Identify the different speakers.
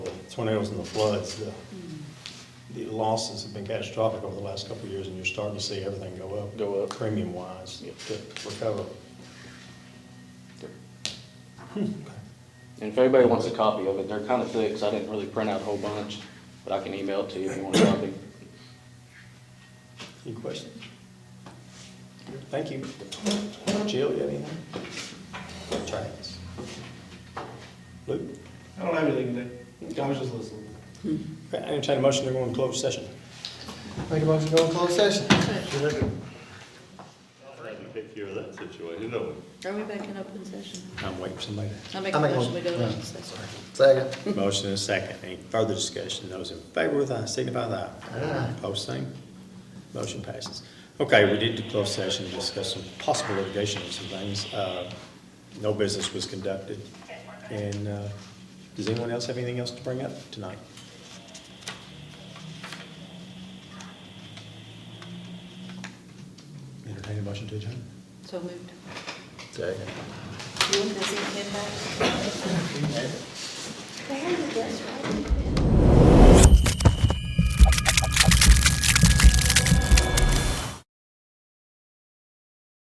Speaker 1: tornadoes and the floods, the, the losses have been catastrophic over the last couple of years, and you're starting to see everything go up.
Speaker 2: Go up.
Speaker 1: Premium wise,
Speaker 2: Yep.
Speaker 1: to recover.
Speaker 2: And if anybody wants a copy of it, they're kind of thick, so I didn't really print out a whole bunch, but I can email it to you if you want a copy.
Speaker 1: Any questions? Thank you. Jill, you have anything? Travis? Luke?
Speaker 3: I don't have anything today. I was just listening.
Speaker 1: Okay, I entertain a motion to go into closed session.
Speaker 4: Make a motion to go in closed session.
Speaker 5: I can take care of that situation, no one.
Speaker 6: Are we back in open session?
Speaker 1: I'm waiting for somebody.
Speaker 6: I make
Speaker 4: I
Speaker 6: a
Speaker 4: make a
Speaker 6: motion, we
Speaker 4: motion.
Speaker 6: go to
Speaker 4: Yeah.
Speaker 6: open session.
Speaker 4: Second.
Speaker 1: Motion and a second. Any further discussion? Those in favor with aye, signify by aye. Post same. Motion passes. Okay, we did do closed session to discuss some possible litigation and some things. Uh, No business was conducted. And uh, does anyone else have anything else to bring up tonight? Entertain a motion to adjourn.
Speaker 6: So moved.
Speaker 4: Second.
Speaker 6: Does it head back?
Speaker 7: They have the best right?